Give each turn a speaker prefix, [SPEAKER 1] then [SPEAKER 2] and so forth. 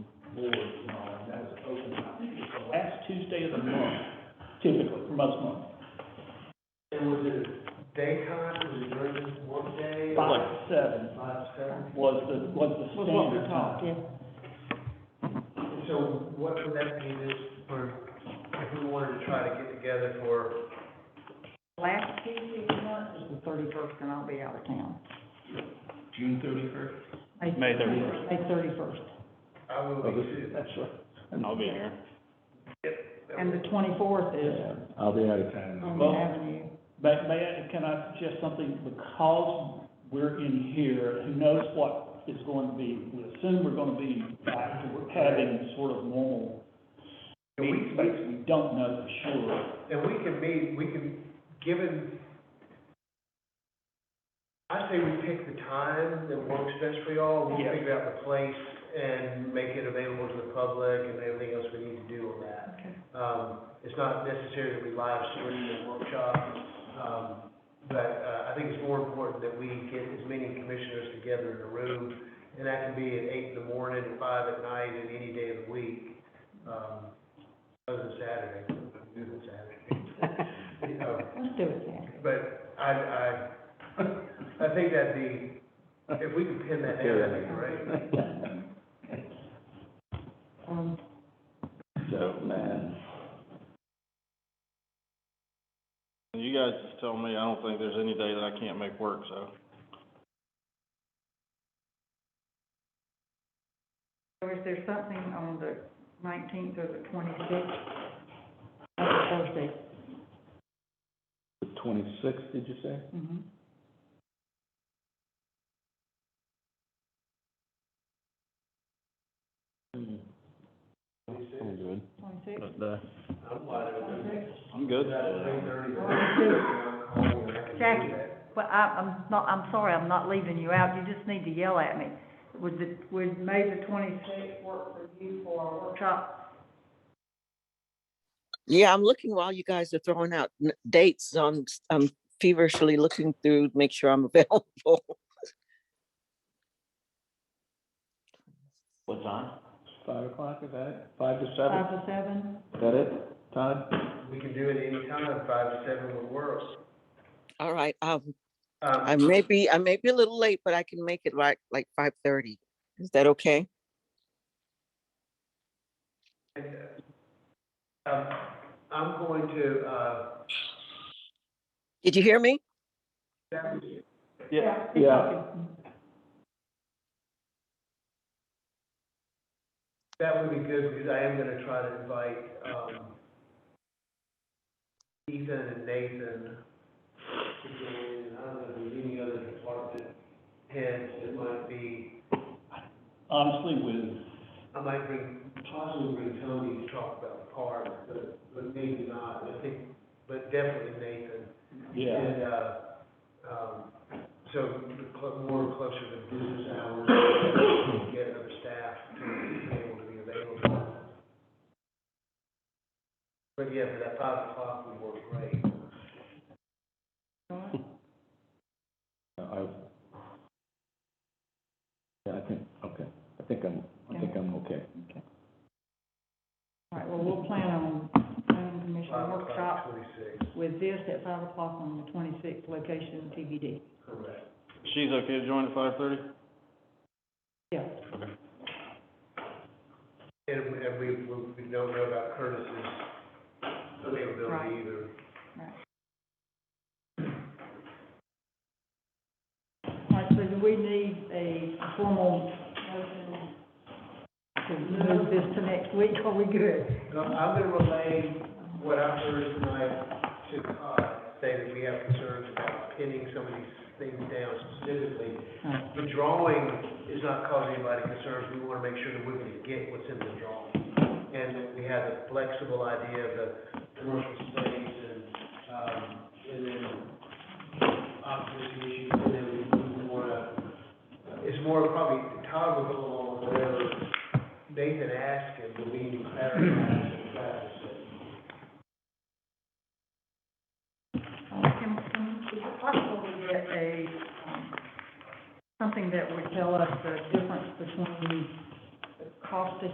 [SPEAKER 1] boards and all, and that's open, I think it's the last Tuesday of the month, typically, for most months.
[SPEAKER 2] And was it daytime, was it during this workday?
[SPEAKER 1] Five, seven
[SPEAKER 2] Five, seven?
[SPEAKER 1] was the, was the
[SPEAKER 3] Was what
[SPEAKER 1] standard
[SPEAKER 3] we
[SPEAKER 1] time.
[SPEAKER 3] talked, yeah.
[SPEAKER 2] And So what would that mean is for, if we wanted to try to get together for,
[SPEAKER 3] Last Tuesday of the month is the thirty-first, and I'll be out of town.
[SPEAKER 4] June thirty-first?
[SPEAKER 1] May 31st.
[SPEAKER 3] May thirty-first.
[SPEAKER 2] I would
[SPEAKER 5] Oh,
[SPEAKER 2] be
[SPEAKER 5] this-
[SPEAKER 2] too.
[SPEAKER 1] That's right.
[SPEAKER 4] I'll be here.
[SPEAKER 3] And the twenty-fourth is
[SPEAKER 5] Yeah, I'll be out of town.
[SPEAKER 3] on the
[SPEAKER 1] Well-
[SPEAKER 3] avenue.
[SPEAKER 1] May, may I, can I suggest something, because we're in here, who knows what is going to be, we assume we're gonna be back to having sort of normal
[SPEAKER 2] And we,
[SPEAKER 1] meeting space, we don't know for sure.
[SPEAKER 2] and we can meet, we can, given, I say we pick the time that works best for y'all, we'll
[SPEAKER 1] Yeah.
[SPEAKER 2] figure out the place and make it available to the public and everything else we need to do on that.
[SPEAKER 3] Okay.
[SPEAKER 2] Um, it's not necessary to be live streaming the workshop, um, but, uh, I think it's more important that we get as many commissioners together in a room, and that can be at eight in the morning, five at night, and any day of the week, um, other than Saturday, other than Saturday. You know,
[SPEAKER 3] Let's do it then.
[SPEAKER 2] But I, I, I think that'd be, if we could pin that down, that'd be great.
[SPEAKER 3] Um,
[SPEAKER 5] So, man,
[SPEAKER 4] You guys just tell me, I don't think there's any day that I can't make work, so.
[SPEAKER 3] so is there something on the nineteenth or the twenty-sixth? Thursday.
[SPEAKER 5] the twenty-sixth, did you say?
[SPEAKER 3] Mm-hmm.
[SPEAKER 5] I'm good.
[SPEAKER 3] Twenty-sixth?
[SPEAKER 2] I'm wide open.
[SPEAKER 4] I'm good.
[SPEAKER 3] Jackie, well, I, I'm not, I'm sorry, I'm not leaving you out, you just need to yell at me. Would the, would May the twenty-sixth work for you for a workshop?
[SPEAKER 6] Yeah, I'm looking while you guys are throwing out n- dates. I'm, s- I'm feverishly looking through, to make sure I'm available.
[SPEAKER 4] What time?
[SPEAKER 5] Five o'clock, is that it? Five to seven,
[SPEAKER 3] Five to seven?
[SPEAKER 5] is that it, Todd?
[SPEAKER 2] We can do it any time. five to seven would work.
[SPEAKER 6] All right, um,
[SPEAKER 2] Um,
[SPEAKER 6] I may be, I may be a little late, but I can make it like, like five thirty. Is that okay?
[SPEAKER 2] um, I'm going to, uh,
[SPEAKER 6] Did you hear me?
[SPEAKER 4] Yeah.
[SPEAKER 3] keep
[SPEAKER 5] Yeah.
[SPEAKER 3] talking.
[SPEAKER 2] that would be good because I am gonna try to invite, um, Ethan and Nathan. And I don't know, if there's any other department heads that might be,
[SPEAKER 1] Honestly, with
[SPEAKER 2] I might bring, possibly bring Tony to talk about the park, but, but maybe not. I think, but definitely Nathan.
[SPEAKER 1] Yeah,
[SPEAKER 2] And, uh, um, so the clo- more closer to business hours, get other staff to be able to be available. But yeah, for that five o'clock would work great.
[SPEAKER 5] I, yeah, I think, okay, I think I'm, I think I'm okay.
[SPEAKER 3] All right, well, we'll plan on, planning commission
[SPEAKER 2] Five
[SPEAKER 3] workshop
[SPEAKER 2] o'clock, twenty-six,
[SPEAKER 3] with this at five o'clock on the twenty-sixth, location TBD.
[SPEAKER 2] correct.
[SPEAKER 4] She's okay to join at five thirty?
[SPEAKER 3] Yeah,
[SPEAKER 2] And, we- and we, we we don't know about Curtis's
[SPEAKER 3] Right.
[SPEAKER 2] availability either.
[SPEAKER 3] all right, so do we need a formal motion to move this to next week, are we good?
[SPEAKER 2] No, I'm gonna relay what I've heard tonight to Todd, say that we have concerns about pinning some of these things down specifically.
[SPEAKER 3] Right.
[SPEAKER 2] The drawing is not causing anybody concerns, we wanna make sure that we're gonna get what's in the drawing. And that we have a flexible idea of the commercial space and, um, and then opposition issues, and then we wanna, it's more probably, Todd will go along with whatever Nathan asked him, but we need to clarify some facts.
[SPEAKER 3] Uh, Can, can, is it possible to get a, um, something that would tell us the difference between the cost to